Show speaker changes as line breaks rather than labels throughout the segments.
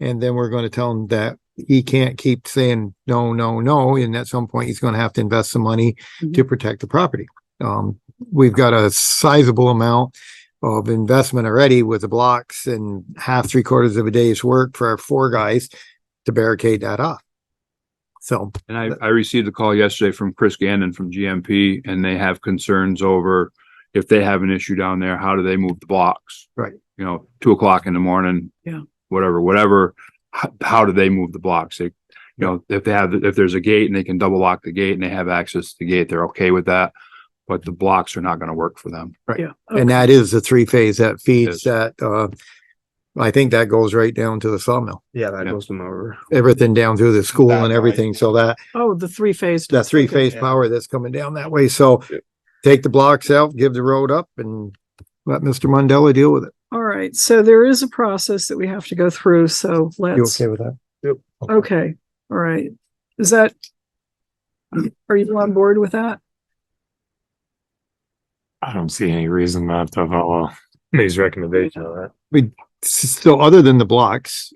And then we're going to tell him that he can't keep saying no, no, no. And at some point, he's going to have to invest some money to protect the property. Um, we've got a sizable amount of investment already with the blocks and half, three quarters of a day's work for our four guys to barricade that off. So
And I, I received a call yesterday from Chris Gannon from GMP and they have concerns over if they have an issue down there, how do they move the blocks?
Right.
You know, two o'clock in the morning.
Yeah.
Whatever, whatever, how, how do they move the blocks? They, you know, if they have, if there's a gate and they can double lock the gate and they have access to the gate, they're okay with that. But the blocks are not gonna work for them.
Yeah. Oh,
And that is the three phase that feeds
Yes.
that, uh, I think that goes right down to the sawmill,
Yeah, that
Yeah.
goes them over.
everything down through the school
That
and
way.
everything. So that,
Oh, the three phase.
that three phase
yeah.
power that's coming down that way. So
Yep.
take the blocks out, give the road up and let Mr. Mandela deal with it.
All right. So there is a process that we have to go through. So
You
let's,
okay with that?
okay. All right. Is that, are you on board with that?
I don't see any reason not to follow these recommendations.
S- So other than the blocks,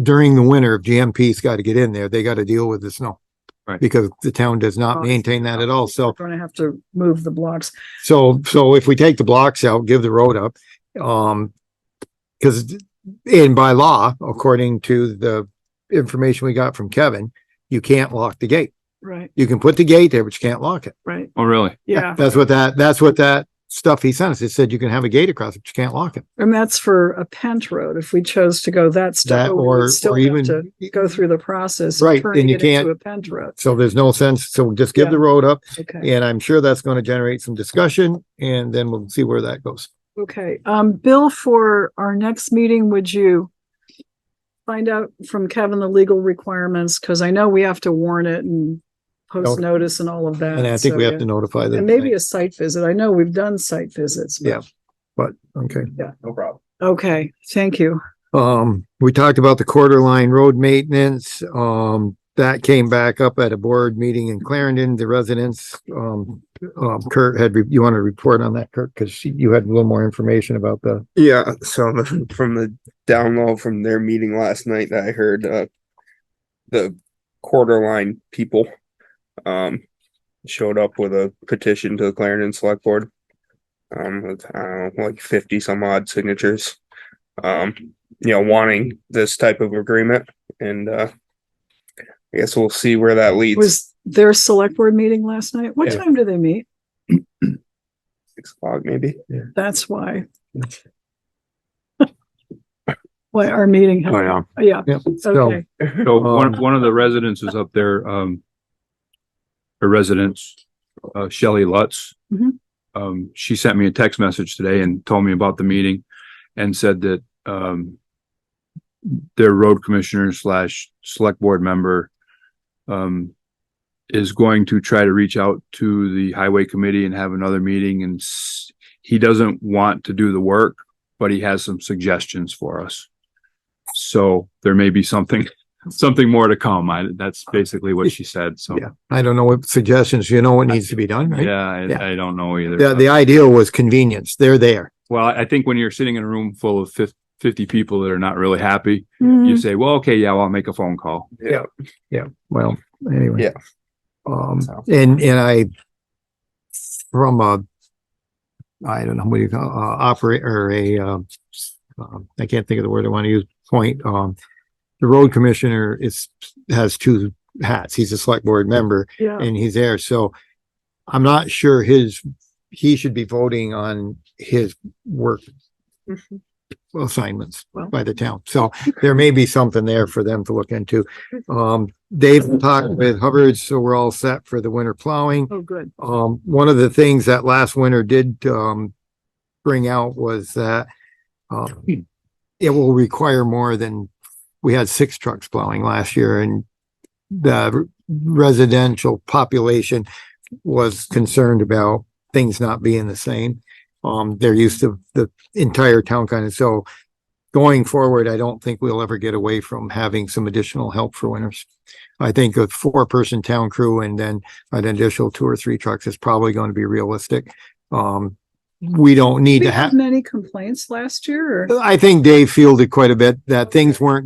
during the winter, if GMP's got to get in there, they got to deal with the snow.
Right.
Because the town does not
Blocks.
maintain that at all. So
We're Going to have to move the blocks.
So, so if we take the blocks out, give the road up, um, because in by law, according to the information we got from Kevin, you can't lock the gate.
Right,
You can put the gate there, but you can't lock it.
right.
Oh, really?
Yeah.
That's what that, that's what that stuff he sent us. It said you can have a gate across, but you can't lock it.
And that's for a pent road. If we chose to go that step,
That
we would
or,
still
or
have to
even,
go through the process. of
Right,
turning
and you
it into
can't-
A pent road.
so there's no sense. So just give the
Yeah.
road up
Okay.
and I'm sure that's going to generate some discussion and then we'll see where that goes.
Okay. Um, Bill, for our next meeting, would you find out from Kevin the legal requirements? Because I know we have to warn it and post
Okay.
notice and all of that.
And I think
so,
we have
yeah.
to notify them.
And maybe a site visit. I know we've done site visits. but-
Yeah. But, okay.
No problem.
Okay, thank you.
Um, we talked about the quarter line road maintenance. Um, that came back up at a board meeting in Clarendon, the residents. Um, um, Kurt had, re- you want to report on that, Kurt? Cause she- you had a little more information about the,
Yeah, so the- from the download from their meeting last night that I heard, uh, the quarter line people, um, showed up with a petition to the Clarendon Select Board. Um, with, I don't know, like fifty some odd signatures, um, you know, wanting this type of agreement and, uh, I guess we'll see where that leads.
Was their select board meeting last night? What
Yeah.
time do they meet?
Six o'clock maybe?
That's why. Why our meeting,
Oh, yeah.
yeah,
yeah, so,
okay,
So one,
Um,
one of the residents is up there, um, her residence, uh, Shelley Lutz.
Mhm.
Um, she sent me a text message today and told me about the meeting and said that, um, their road commissioner slash select board member, um, is going to try to reach out to the highway committee and have another meeting and s- he doesn't want to do the work, but he has some suggestions for us. So there may be something something more to come. I, that's basically what she said. So,
yeah, I don't know what suggestions, you know what needs to be done, right?
yeah,
Yeah.
I, I don't know either.
The, the ideal was convenience. They're there.
well, I think when you're sitting in a room full of fif- 50 people that are not really happy, you
Mm-hmm.
Mhm.
say, well, okay, yeah, well, I'll make a phone call.
Well, anyway.
Yeah.
Um,
So.
and, and I, from a, I don't know, what do you call, uh, operator, a, um, um, I can't think of the word I want to use, point, um, the road commissioner is, has two hats. He's a select board member
yeah.
and he's there, so I'm not sure his, he should be voting on his work
Mhm.
assignments
Well.
by the town. So there may be something there for them to look into. Um, they've talked with Hubbard, so we're all set for the winter plowing.
Oh, good.
Um, one of the things that last winter did, um, bring out was that, um, it will require more than, we had six trucks plowing last year and the residential population was concerned about things not being the same. Um, they're used to the entire town kind of, so going forward, I don't think we'll ever get away from having some additional help for winters. I think a four-person town crew and then an additional two or three trucks is probably going to be realistic. Um, we don't need
We
to
have
have,
many complaints last year or?
I think Dave fielded quite a bit that things weren't